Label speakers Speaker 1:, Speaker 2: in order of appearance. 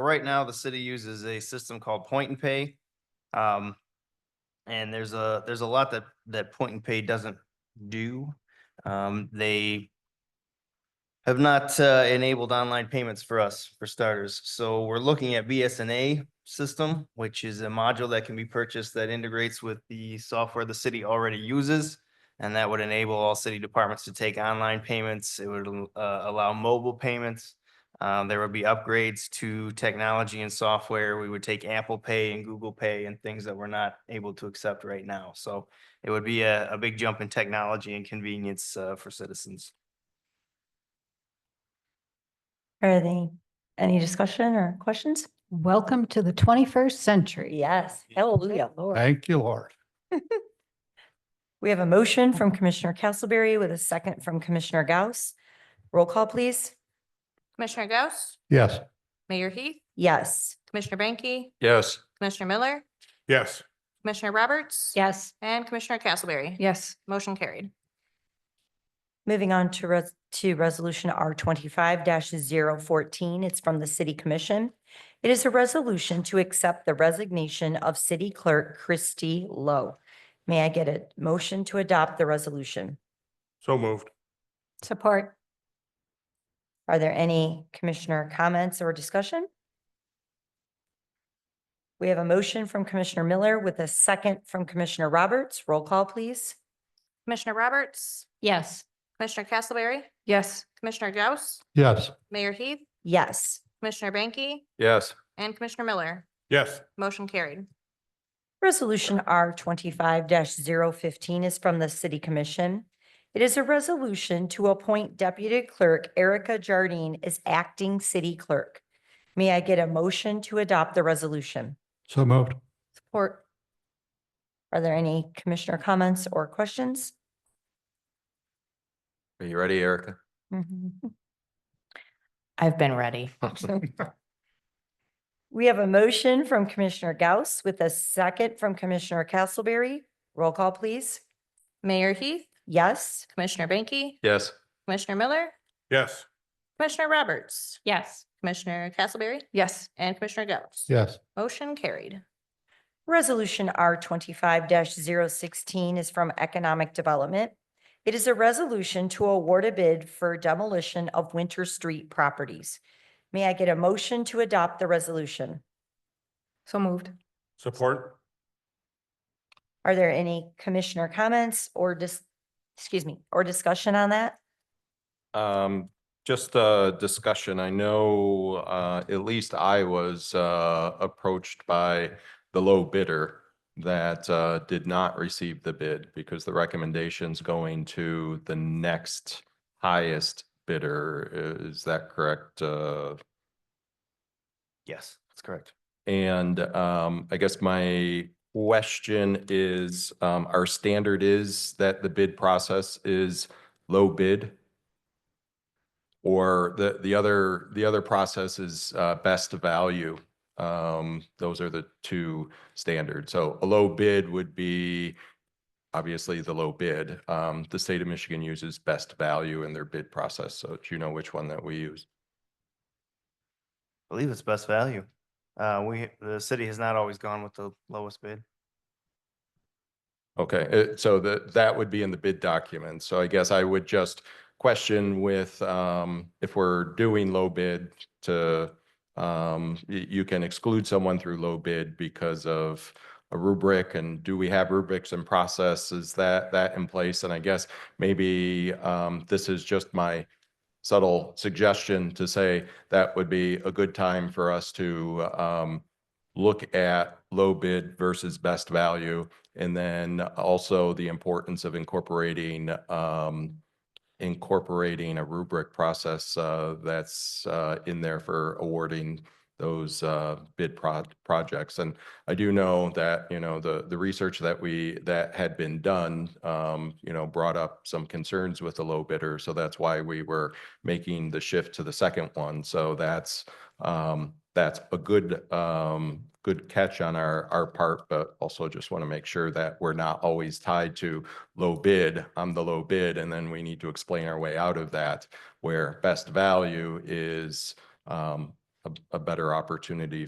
Speaker 1: right now, the city uses a system called Point and Pay. Um, and there's a, there's a lot that, that Point and Pay doesn't do. Um, they have not, uh, enabled online payments for us, for starters. So we're looking at BSNA system, which is a module that can be purchased that integrates with the software the city already uses. And that would enable all city departments to take online payments. It would, uh, allow mobile payments. Um, there would be upgrades to technology and software. We would take Apple Pay and Google Pay and things that we're not able to accept right now. So it would be a, a big jump in technology and convenience, uh, for citizens.
Speaker 2: Are they, any discussion or questions?
Speaker 3: Welcome to the twenty-first century.
Speaker 2: Yes, hallelujah, Lord.
Speaker 4: Thank you, Lord.
Speaker 2: We have a motion from Commissioner Castleberry with a second from Commissioner Gauss. Roll call, please.
Speaker 5: Commissioner Gauss,
Speaker 4: Yes.
Speaker 5: Mayor Heath,
Speaker 2: Yes.
Speaker 5: Commissioner Banky,
Speaker 4: Yes.
Speaker 5: Commissioner Miller,
Speaker 4: Yes.
Speaker 5: Commissioner Roberts.
Speaker 3: Yes.
Speaker 5: And Commissioner Castleberry.
Speaker 3: Yes.
Speaker 5: Motion carried.
Speaker 2: Moving on to res- to resolution R twenty-five 14 It's from the City Commission. It is a resolution to accept the resignation of City Clerk Christie Lowe. May I get a motion to adopt the resolution?
Speaker 4: So moved.
Speaker 3: Support.
Speaker 2: Are there any commissioner comments or discussion? We have a motion from Commissioner Miller with a second from Commissioner Roberts. Roll call, please.
Speaker 5: Commissioner Roberts,
Speaker 3: Yes.
Speaker 5: Commissioner Castleberry,
Speaker 3: Yes.
Speaker 5: Commissioner Gauss,
Speaker 4: Yes.
Speaker 5: Mayor Heath,
Speaker 2: Yes.
Speaker 5: Commissioner Banky,
Speaker 4: Yes.
Speaker 5: and Commissioner Miller.
Speaker 4: Yes.
Speaker 5: Motion carried.
Speaker 2: Resolution R twenty-five 15 is from the City Commission. It is a resolution to appoint Deputy Clerk Erica Jardine as acting city clerk. May I get a motion to adopt the resolution?
Speaker 4: So moved.
Speaker 2: Support. Are there any commissioner comments or questions?
Speaker 6: Are you ready, Erica?
Speaker 5: I've been ready.
Speaker 2: We have a motion from Commissioner Gauss with a second from Commissioner Castleberry. Roll call, please.
Speaker 5: Mayor Heath,
Speaker 2: Yes.
Speaker 5: Commissioner Banky,
Speaker 6: Yes.
Speaker 5: Commissioner Miller,
Speaker 4: Yes.
Speaker 5: Commissioner Roberts,
Speaker 3: Yes.
Speaker 5: Commissioner Castleberry,
Speaker 3: Yes.
Speaker 5: and Commissioner Gauss.
Speaker 4: Yes.
Speaker 5: Motion carried.
Speaker 2: Resolution R twenty-five 16 is from Economic Development. It is a resolution to award a bid for demolition of Winter Street properties. May I get a motion to adopt the resolution?
Speaker 3: So moved.
Speaker 4: Support.
Speaker 2: Are there any commissioner comments or dis, excuse me, or discussion on that?
Speaker 6: Um, just a discussion. I know, uh, at least I was, uh, approached by the low bidder that, uh, did not receive the bid because the recommendation's going to the next highest bidder. Is that correct, uh,
Speaker 1: Yes, that's correct.
Speaker 6: And um, I guess my question is, um, our standard is that the bid process is low bid? Or the, the other, the other process is uh, best value? Um, Those are the two standards. So a low bid would be obviously the low bid. Um, The state of Michigan uses best value in their bid process, so do you know which one that we use?
Speaker 1: I believe it's best value. Uh, we, the city has not always gone with the lowest bid.
Speaker 6: Okay, uh, so that, that would be in the bid document. So I guess I would just question with, um, if we're doing low bid to, um, y- you can exclude someone through low bid because of a rubric and do we have rubrics and process? Is that, that in place? And I guess maybe, um, this is just my subtle suggestion to say that would be a good time for us to, um, look at low bid versus best value. And then also the importance of incorporating, um, incorporating a rubric process, uh, that's, uh, in there for awarding those, uh, bid pro- projects. And I do know that, you know, the, the research that we, that had been done, um, you know, brought up some concerns with the low bidder. So that's why we were making the shift to the second one. So that's, um, that's a good, um, good catch on our, our part, but also just want to make sure that we're not always tied to low bid, I'm the low bid, and then we need to explain our way out of that, where best value is, um, a, a better opportunity